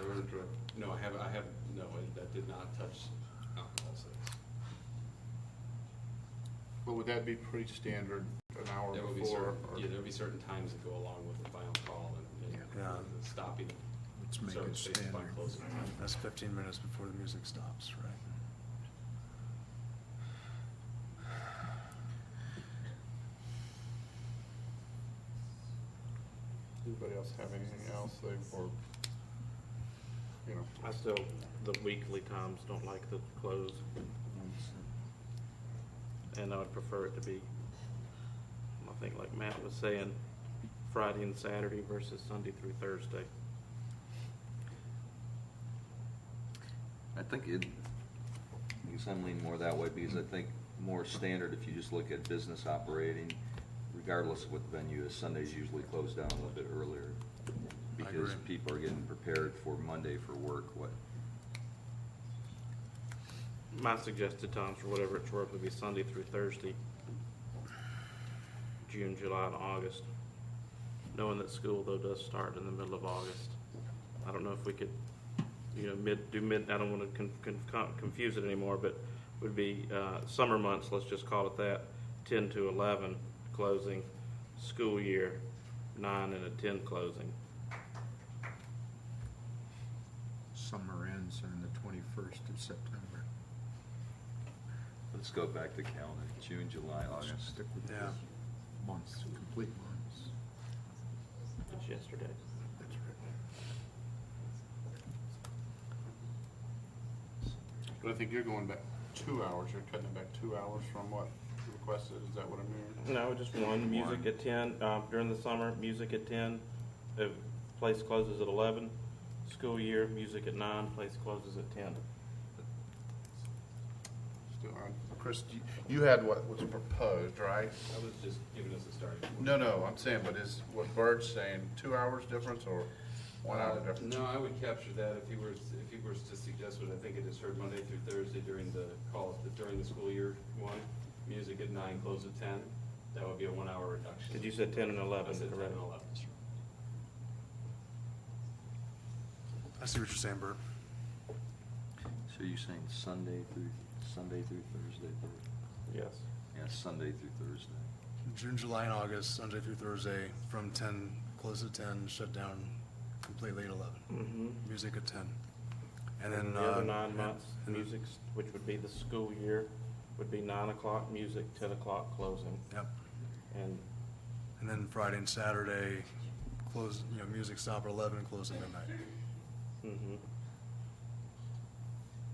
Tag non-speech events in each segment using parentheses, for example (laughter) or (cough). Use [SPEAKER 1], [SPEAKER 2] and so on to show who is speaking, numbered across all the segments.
[SPEAKER 1] Road and drug, no, I have, I have, no, I- that did not touch alcohol sales.
[SPEAKER 2] But would that be pretty standard, an hour
[SPEAKER 1] There will be
[SPEAKER 2] before?
[SPEAKER 1] certain,
[SPEAKER 2] or-
[SPEAKER 1] yeah, there'll be certain times that go along with the final call and, and
[SPEAKER 3] Yeah.
[SPEAKER 1] the stopping
[SPEAKER 4] Let's make
[SPEAKER 1] certain
[SPEAKER 4] it
[SPEAKER 1] spaces by
[SPEAKER 4] standard.
[SPEAKER 1] closing time.
[SPEAKER 3] That's fifteen minutes before the music stops, right?
[SPEAKER 2] Anybody else have anything else they, or, you know?
[SPEAKER 5] I still, the weekly times don't like the close, and I would prefer it to be, I think like Matt was saying, Friday and Saturday versus Sunday through Thursday.
[SPEAKER 6] I think it, I guess I'm leaning more that way because I think more standard, if you just look at business operating, regardless of what the venue is, Sundays usually close down a little bit earlier.
[SPEAKER 3] I
[SPEAKER 6] Because
[SPEAKER 3] agree.
[SPEAKER 6] people are getting prepared for Monday for work, what,
[SPEAKER 5] My suggested times for whatever it's worth would be Sunday through Thursday, June, July, and August. Knowing that school though does start in the middle of August. I don't know if we could, you know, mid, do mid, I don't want to con, con, con- confuse it anymore, but would be, uh, summer months, let's just call it that, ten to eleven closing, school year, nine and a ten closing.
[SPEAKER 4] Summer ends on the twenty-first of September.
[SPEAKER 6] let's go back to calendar, June, July,
[SPEAKER 2] Oh,
[SPEAKER 4] Let's
[SPEAKER 6] August.
[SPEAKER 4] Stick with
[SPEAKER 3] Yeah.
[SPEAKER 4] the months, complete months.
[SPEAKER 5] It's yesterday.
[SPEAKER 4] That's right.
[SPEAKER 2] But I think you're going back two hours, you're cutting it back two hours from what requested, is that what I'm hearing?
[SPEAKER 5] No, just one. Music at ten, um, during the summer, music at ten, uh, place closes at eleven. School year, music at nine, place closes at ten.
[SPEAKER 2] Still on. Chris, you- you had what was proposed, right?
[SPEAKER 1] I was just giving us a starting point.
[SPEAKER 2] No, no, I'm saying, but is what Bird's saying, two hours difference or one hour difference?
[SPEAKER 1] Uh, No, I would capture that if he were, if he were to suggest what I think it is heard Monday through Thursday during the call, during the school year one, music at nine, close at ten, that would be a one-hour reduction.
[SPEAKER 5] Did you say ten and
[SPEAKER 1] I
[SPEAKER 5] eleven,
[SPEAKER 1] said ten
[SPEAKER 5] correct?
[SPEAKER 1] and eleven.
[SPEAKER 3] I see what you're saying, Bert.
[SPEAKER 6] So you're saying Sunday through, Sunday through Thursday, Thur-
[SPEAKER 5] Yes.
[SPEAKER 6] yeah, Sunday through Thursday.
[SPEAKER 3] June, July, and August, Sunday through Thursday, from ten, close at ten, shut down completely at eleven.
[SPEAKER 5] Mm-hmm.
[SPEAKER 3] Music at ten. And then,
[SPEAKER 5] The
[SPEAKER 3] uh.
[SPEAKER 5] other nine
[SPEAKER 3] and-
[SPEAKER 5] months,
[SPEAKER 3] and-
[SPEAKER 5] music, which would be the school year, would be nine o'clock music, ten o'clock closing.
[SPEAKER 3] Yep.
[SPEAKER 5] And
[SPEAKER 3] And then Friday and Saturday, close, you know, music stop at eleven and close at midnight.
[SPEAKER 5] hmm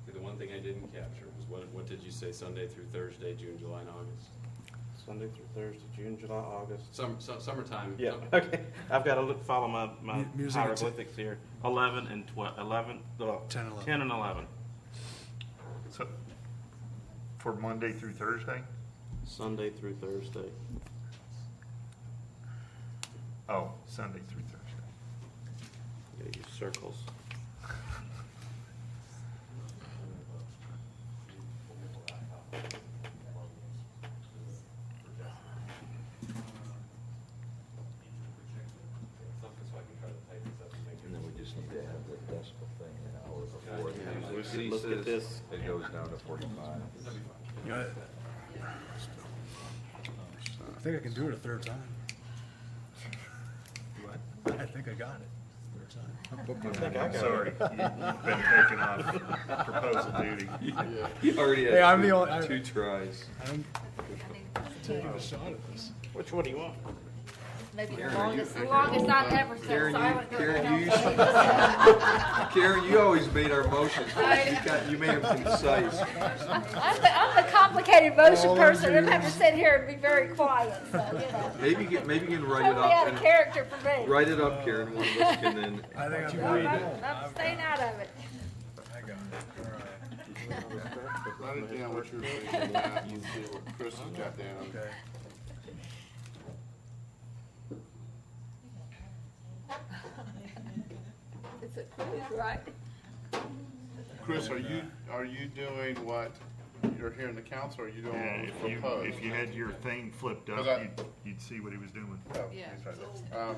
[SPEAKER 1] Okay, The one thing I didn't capture was what, what did you say Sunday through Thursday, June, July, and August?
[SPEAKER 5] Sunday through Thursday, June, July, August.
[SPEAKER 1] Summer, su- summertime.
[SPEAKER 5] Yeah, (laughs) okay. I've got to look, follow my, my
[SPEAKER 3] Mu- music at ten-
[SPEAKER 5] hieroglyphics here. Eleven and twelve, eleven, uh,
[SPEAKER 3] Ten, eleven.
[SPEAKER 5] ten and eleven.
[SPEAKER 2] So, for Monday through Thursday?
[SPEAKER 5] Sunday through Thursday.
[SPEAKER 2] Oh, Sunday through Thursday.
[SPEAKER 5] Yeah, use circles.
[SPEAKER 1] Something so I can try to type this up and make
[SPEAKER 6] And then we just need to have the decimal thing an hour before
[SPEAKER 1] Yeah,
[SPEAKER 6] the
[SPEAKER 1] let's
[SPEAKER 6] music
[SPEAKER 5] look at this.
[SPEAKER 6] ceases. It goes down to forty-five.
[SPEAKER 3] You know, I think I can do it a third time. I think I got it. Third time.
[SPEAKER 7] Sorry, you-
[SPEAKER 5] (laughs)
[SPEAKER 7] you've been taken off proposal duty.
[SPEAKER 6] You already
[SPEAKER 3] Hey,
[SPEAKER 6] had
[SPEAKER 3] I'm the only- I-
[SPEAKER 6] two, two tries.
[SPEAKER 3] I'm
[SPEAKER 8] Maybe
[SPEAKER 3] taking a shot at this.
[SPEAKER 5] Which one do you want?
[SPEAKER 8] the longest, the longest I've ever
[SPEAKER 6] Karen,
[SPEAKER 8] said, so I
[SPEAKER 6] you,
[SPEAKER 8] would
[SPEAKER 6] Karen, you,
[SPEAKER 8] go.
[SPEAKER 6] Karen, you always made our motions, for us. you got, you made them concise.
[SPEAKER 8] I'm the, I'm the complicated motion
[SPEAKER 3] All
[SPEAKER 8] person,
[SPEAKER 3] engineers.
[SPEAKER 8] I'm having to sit here and be very quiet, so, you know.
[SPEAKER 6] Maybe, you can- maybe you can write it
[SPEAKER 8] Totally
[SPEAKER 6] up
[SPEAKER 8] out of
[SPEAKER 6] and,
[SPEAKER 8] character for me.
[SPEAKER 6] write it up, Karen, one of us can then.
[SPEAKER 3] I think I'm.
[SPEAKER 8] I'm, I'm staying out of it.
[SPEAKER 3] I got it. All right.
[SPEAKER 2] Write it down what you're thinking, Matt, and see what Chris has got down.
[SPEAKER 3] Okay.
[SPEAKER 8] It's a quiz, right?
[SPEAKER 2] Chris, are you, are you doing what you're hearing the council, or are you doing
[SPEAKER 7] Yeah,
[SPEAKER 2] what
[SPEAKER 7] if you,
[SPEAKER 2] was proposed?
[SPEAKER 7] if you had your thing flipped
[SPEAKER 2] Was I-
[SPEAKER 7] up, you'd, you'd see what he was doing.
[SPEAKER 2] Oh, he's right there. Um,